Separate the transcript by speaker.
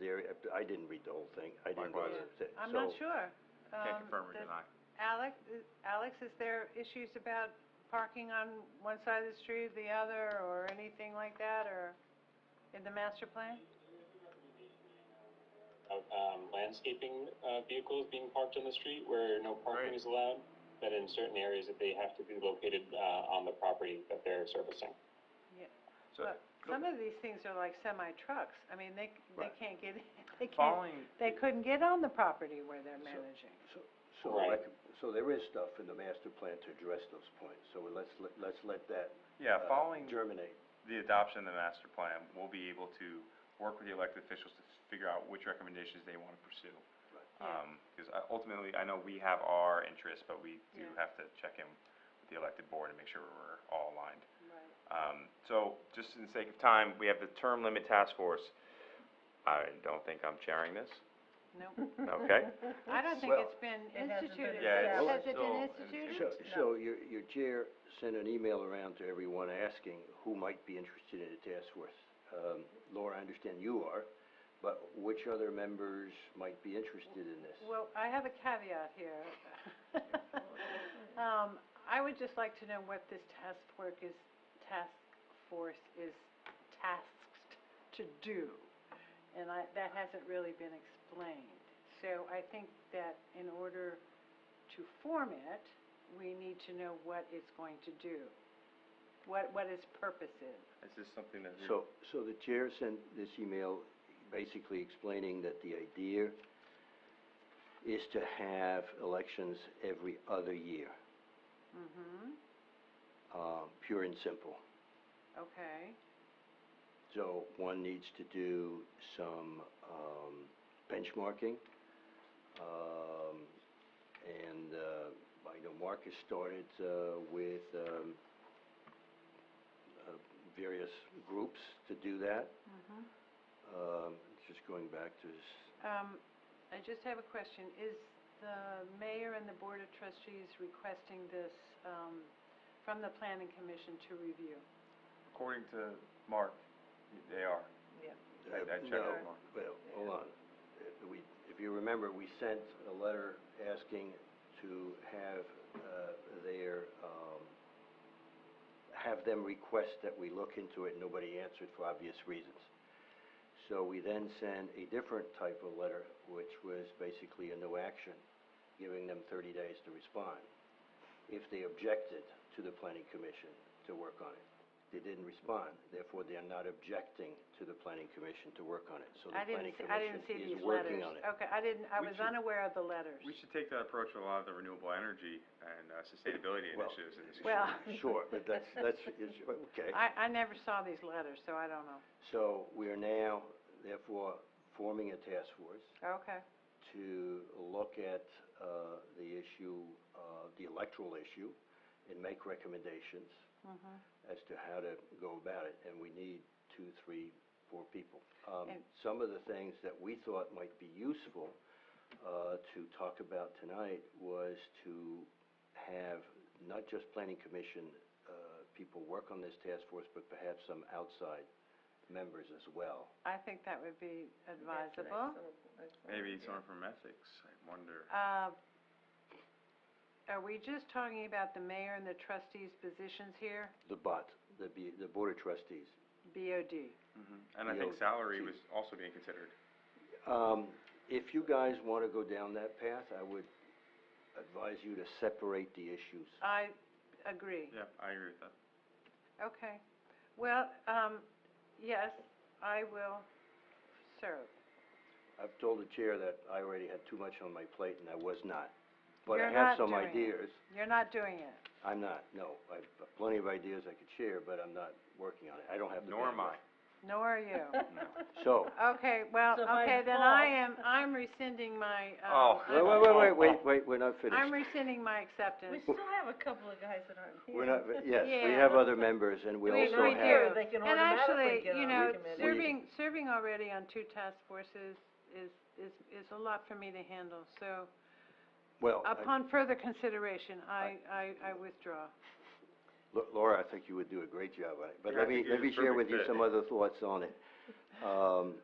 Speaker 1: very, I didn't read the whole thing, I didn't go
Speaker 2: Likewise.
Speaker 1: through it.
Speaker 3: I'm not
Speaker 1: So-
Speaker 3: sure. Um,
Speaker 2: Can't confirm or
Speaker 3: the-
Speaker 2: deny.
Speaker 3: Alex, Alex, is there issues about parking on one side of the street, the other, or anything like that, or in the master plan?
Speaker 4: of um, landscaping uh, vehicles being parked on the street where no parking
Speaker 2: Right.
Speaker 4: is allowed, but in certain areas that they have to be located uh, on the property that they're servicing.
Speaker 2: So,
Speaker 3: But Some of these things are like semi-trucks. I mean, they, c- they
Speaker 1: Right.
Speaker 3: can't get, they can't,
Speaker 2: following,
Speaker 3: they couldn't get on the property where they're
Speaker 1: So-
Speaker 3: managing.
Speaker 1: So, so
Speaker 4: Right.
Speaker 1: like, so there is stuff in the master plan to address those points, so let's, let- let's let that.
Speaker 2: yeah,
Speaker 1: uh,
Speaker 2: following
Speaker 1: Germinate.
Speaker 2: the adoption of the master plan, we'll be able to work with the elected officials to figure out which recommendations they want to pursue.
Speaker 3: Yeah.
Speaker 2: Um, because ultimately, I know we have our interests, but we do
Speaker 3: Yeah.
Speaker 2: have to check in with the elected board and make sure we're all aligned.
Speaker 3: Right.
Speaker 2: Um, so, just in the sake of time, we have the term limit task force. I don't think I'm chairing this,
Speaker 3: Nope.
Speaker 2: okay?
Speaker 3: I don't think
Speaker 1: Well-
Speaker 3: it's been
Speaker 5: It hasn't been
Speaker 3: instituted.
Speaker 2: Yeah,
Speaker 1: it's
Speaker 3: Has
Speaker 2: still-
Speaker 3: it been
Speaker 2: it's-
Speaker 3: instituted?
Speaker 1: So, so your, your chair sent an email around to everyone asking who might be interested in the task force. Um, Laura, I understand you are, but which other members might be interested in this?
Speaker 3: Well, I have a caveat here. Um, I would just like to know what this task force is, task force is tasked to do. And I, that hasn't really been explained. So I think that in order to form it, we need to know what it's going to do. What, what its purpose is.
Speaker 2: Is this something that
Speaker 1: So, so the chair sent this email basically explaining that the idea is to have elections every other year,
Speaker 3: Mm-hmm,
Speaker 1: uh, pure and simple.
Speaker 3: okay,
Speaker 1: So one needs to do some, um, benchmarking. Um, and, uh, I know Mark has started, uh, with, um, uh, various groups to do that.
Speaker 3: mm-hmm.
Speaker 1: Um, just going back to s-
Speaker 3: Um, I just have a question. Is the mayor and the board of trustees requesting this, um, from the planning commission to review?
Speaker 2: According to Mark, they are. I, I checked
Speaker 1: Uh, No,
Speaker 2: with Mark.
Speaker 1: well, hold on. Uh, We, if you remember, we sent a letter asking to have, uh, their, um, have them request that we look into it, nobody answered for obvious reasons. So we then sent a different type of letter, which was basically a no action, giving them thirty days to respond. If they objected to the planning commission to work on it. They didn't respond, therefore they are not objecting to the planning commission to work on it. So the
Speaker 3: I
Speaker 1: planning
Speaker 3: didn't, see- I didn't see
Speaker 1: commission is
Speaker 3: these letters.
Speaker 1: working on it.
Speaker 3: Okay, I didn't, I
Speaker 2: We
Speaker 3: was
Speaker 2: should-
Speaker 3: unaware of the letters.
Speaker 2: We should take that approach with a lot of the renewable energy and uh, sustainability
Speaker 1: Well,
Speaker 2: initiatives in this.
Speaker 3: Well,
Speaker 1: Sure, but that's, that's, is- okay.
Speaker 3: I, I never saw these letters, so I don't know.
Speaker 1: So we are now therefore forming a task force
Speaker 3: Okay,
Speaker 1: to look at, uh, the issue, uh, the electoral issue and make recommendations
Speaker 3: mhm.
Speaker 1: as to how to go about it, and we need two, three, four people. Um,
Speaker 3: And-
Speaker 1: some of the things that we thought might be useful, uh, to talk about tonight was to have not just planning commission, uh, people work on this task force, but perhaps some outside members as well.
Speaker 3: I think that would be advisable.
Speaker 2: Maybe someone from ethics, I wonder.
Speaker 3: Uh, are we just talking about the mayor and the trustees' positions here?
Speaker 1: The BOT, the, B- the Board of Trustees.
Speaker 3: BOD.
Speaker 2: And I think
Speaker 1: Yeah.
Speaker 2: salary was also being considered.
Speaker 1: Um, if you guys wanna go down that path, I would advise you to separate the issues.
Speaker 3: I agree.
Speaker 2: Yeah, I agree with that.
Speaker 3: Okay. Well, um, yes, I will serve.
Speaker 1: I've told the chair that I already had too much on my plate and I was not. But
Speaker 3: You're
Speaker 1: I
Speaker 3: not
Speaker 1: have some
Speaker 3: doing it.
Speaker 1: ideas.
Speaker 3: You're not doing it.
Speaker 1: I'm not, no. I've got plenty of ideas I could share, but I'm not working on it. I don't have the
Speaker 2: Nor am I.
Speaker 1: bandwidth.
Speaker 3: Nor are you.
Speaker 1: So,
Speaker 3: Okay, well,
Speaker 5: So by
Speaker 3: okay, then
Speaker 5: default-
Speaker 3: I am, I'm rescinding my, um,
Speaker 2: Oh.
Speaker 1: wait, wait, wait, wait, wait, wait, we're not finished.
Speaker 3: I'm rescinding my
Speaker 5: We
Speaker 3: acceptance.
Speaker 5: still have a couple of guys that aren't here.
Speaker 1: We're not, yes, we
Speaker 3: Yeah.
Speaker 1: have other members and we
Speaker 3: We-
Speaker 1: also
Speaker 3: we
Speaker 1: have.
Speaker 3: do.
Speaker 5: They can
Speaker 3: And
Speaker 5: automatically
Speaker 3: actually,
Speaker 5: get
Speaker 3: you
Speaker 5: on
Speaker 3: know,
Speaker 5: the committee.
Speaker 1: We-
Speaker 3: serving, serving already on two task forces is, is, is a lot for me to handle. So
Speaker 1: Well, I-
Speaker 3: upon further consideration, I, I, I withdraw.
Speaker 1: Lo- Laura, I think you would do a great job on it, but
Speaker 2: Yeah, I
Speaker 1: let me,
Speaker 2: think you're
Speaker 1: let me
Speaker 2: the
Speaker 1: share
Speaker 2: perfect
Speaker 1: with you
Speaker 2: fit.
Speaker 1: some other thoughts on it. Um,